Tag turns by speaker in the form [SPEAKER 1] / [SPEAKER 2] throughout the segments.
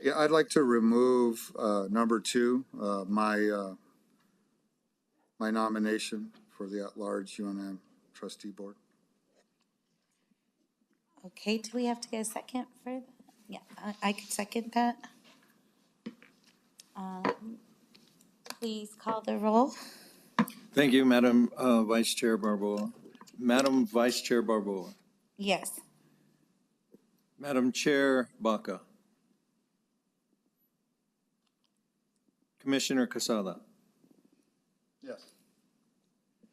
[SPEAKER 1] Yeah, I'd like to remove, uh, number two, uh, my, uh, my nomination for the at-large UNM trustee board.
[SPEAKER 2] Okay, do we have to get a second for that? Yeah, I, I could second that. Um, Please call the roll.
[SPEAKER 3] Thank you, Madam uh, Vice Chair Barboa. Madam Vice Chair Barboa.
[SPEAKER 2] Yes.
[SPEAKER 3] Madam Chair Baca. Commissioner Casada.
[SPEAKER 1] Yes.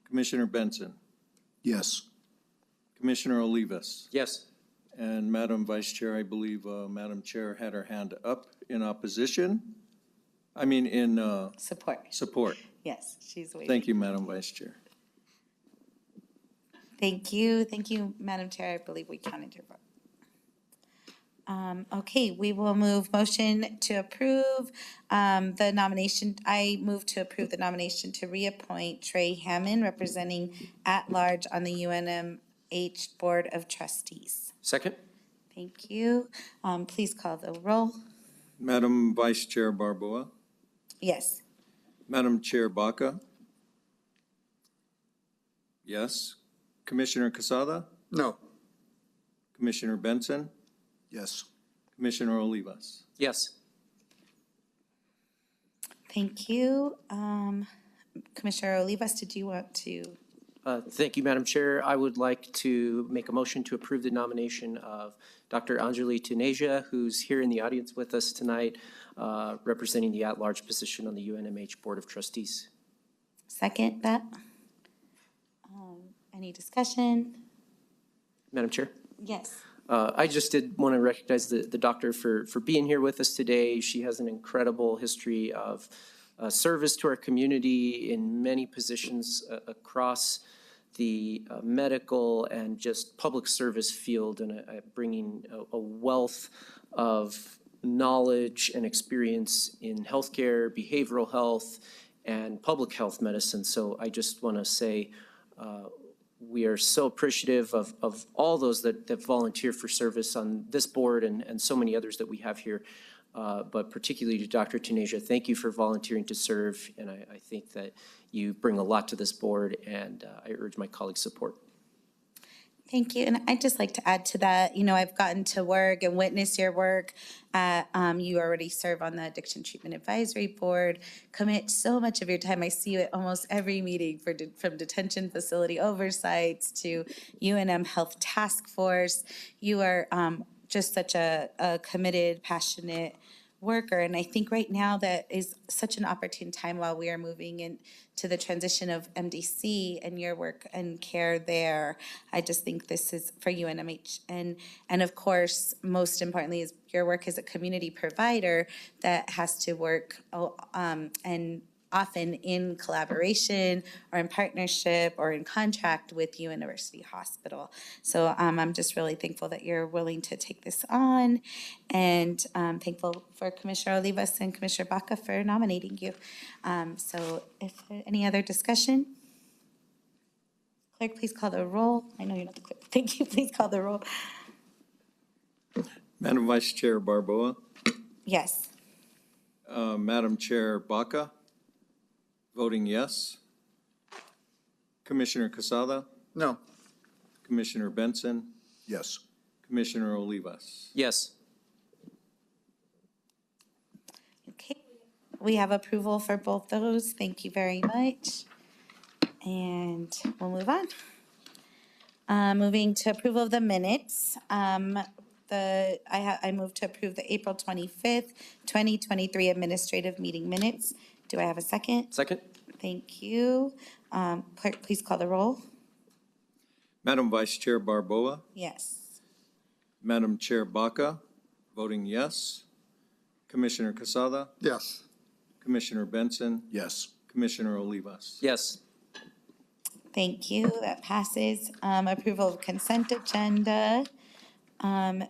[SPEAKER 3] Commissioner Benson.
[SPEAKER 4] Yes.
[SPEAKER 3] Commissioner Olivas.
[SPEAKER 5] Yes.
[SPEAKER 3] And Madam Vice Chair, I believe uh, Madam Chair had her hand up in opposition, I mean, in uh,
[SPEAKER 2] Support.
[SPEAKER 3] support.
[SPEAKER 2] Yes, she's waiting.
[SPEAKER 3] Thank you, Madam Vice Chair.
[SPEAKER 2] Thank you, thank you, Madam Chair. I believe we counted your vote. Um, okay, we will move motion to approve, um, the nomination. I move to approve the nomination to reappoint Trey Hammond, representing at-large on the UNMH Board of Trustees.
[SPEAKER 5] Second?
[SPEAKER 2] Thank you. Um, please call the roll.
[SPEAKER 3] Madam Vice Chair Barboa.
[SPEAKER 2] Yes.
[SPEAKER 3] Madam Chair Baca? Yes. Commissioner Casada?
[SPEAKER 1] No,
[SPEAKER 3] Commissioner Benson?
[SPEAKER 4] Yes.
[SPEAKER 3] Commissioner Olivas?
[SPEAKER 5] Yes.
[SPEAKER 2] Thank you. Um, Commissioner Olivas, did you want to?
[SPEAKER 5] Uh, Thank you, Madam Chair. I would like to make a motion to approve the nomination of Dr. Anjali Tuneja, who's here in the audience with us tonight, uh, representing the at-large position on the UNMH Board of Trustees.
[SPEAKER 2] Second that? Um, Any discussion?
[SPEAKER 5] Madam Chair?
[SPEAKER 2] Yes.
[SPEAKER 5] Uh, I just did want to recognize the, the doctor for, for being here with us today. She has an incredible history of uh, service to our community in many positions uh, across the uh, medical and just public service field and uh, bringing a, a wealth of knowledge and experience in healthcare, behavioral health, and public health medicine. So I just want to say, we are so appreciative of, of all those that, that volunteer for service on this board and, and so many others that we have here. Uh, but particularly to Dr. Tuneja, thank you for volunteering to serve. And I, I think that you bring a lot to this board and uh, I urge my colleagues' support.
[SPEAKER 2] Thank you. And I'd just like to add to that, you know, I've gotten to work and witness your work. Uh, um, you already serve on the Addiction Treatment Advisory Board, commit so much of your time. I see you at almost every meeting for, de- from detention facility oversights to UNM Health Task Force. You are, um, just such a, a committed, passionate worker. And I think right now that is such an opportune time while we are moving into the transition of MDC and your work and care there. I just think this is for UNMH. And, and of course, most importantly, is your work as a community provider that has to work oh, um, and often in collaboration or in partnership or in contract with University Hospital. So um, I'm just really thankful that you're willing to take this on and um, thankful for Commissioner Olivas and Commissioner Baca for nominating you. Um, So if there- any other discussion? Clerk, please call the roll. I know you're not the clerk. Thank you. Please call the roll.
[SPEAKER 3] Madam Vice Chair Barboa?
[SPEAKER 2] Yes.
[SPEAKER 3] Uh, Madam Chair Baca? Voting yes. Commissioner Casada?
[SPEAKER 1] no,
[SPEAKER 3] Commissioner Benson?
[SPEAKER 4] Yes.
[SPEAKER 3] Commissioner Olivas?
[SPEAKER 5] Yes.
[SPEAKER 2] Okay, we have approval for both those. Thank you very much. And we'll move on. Uh, moving to approval of the minutes. Um, the, I ha, I move to approve the April twenty-fifth, twenty twenty-three administrative meeting minutes. Do I have a second?
[SPEAKER 5] Second?
[SPEAKER 2] Thank you. Um, clerk, please call the roll.
[SPEAKER 3] Madam Vice Chair Barboa?
[SPEAKER 2] Yes.
[SPEAKER 3] Madam Chair Baca? Voting yes. Commissioner Casada?
[SPEAKER 1] yes,
[SPEAKER 3] Commissioner Benson?
[SPEAKER 4] Yes.
[SPEAKER 3] Commissioner Olivas?
[SPEAKER 5] Yes.
[SPEAKER 2] Thank you. That passes. Um, approval of consent agenda. Um,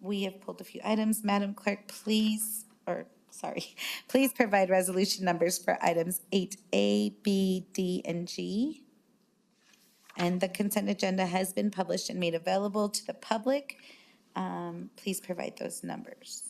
[SPEAKER 2] We have pulled a few items. Madam Clerk, please, or, sorry, please provide resolution numbers for items 8A, B, D, and G. And the consent agenda has been published and made available to the public. Um, Please provide those numbers.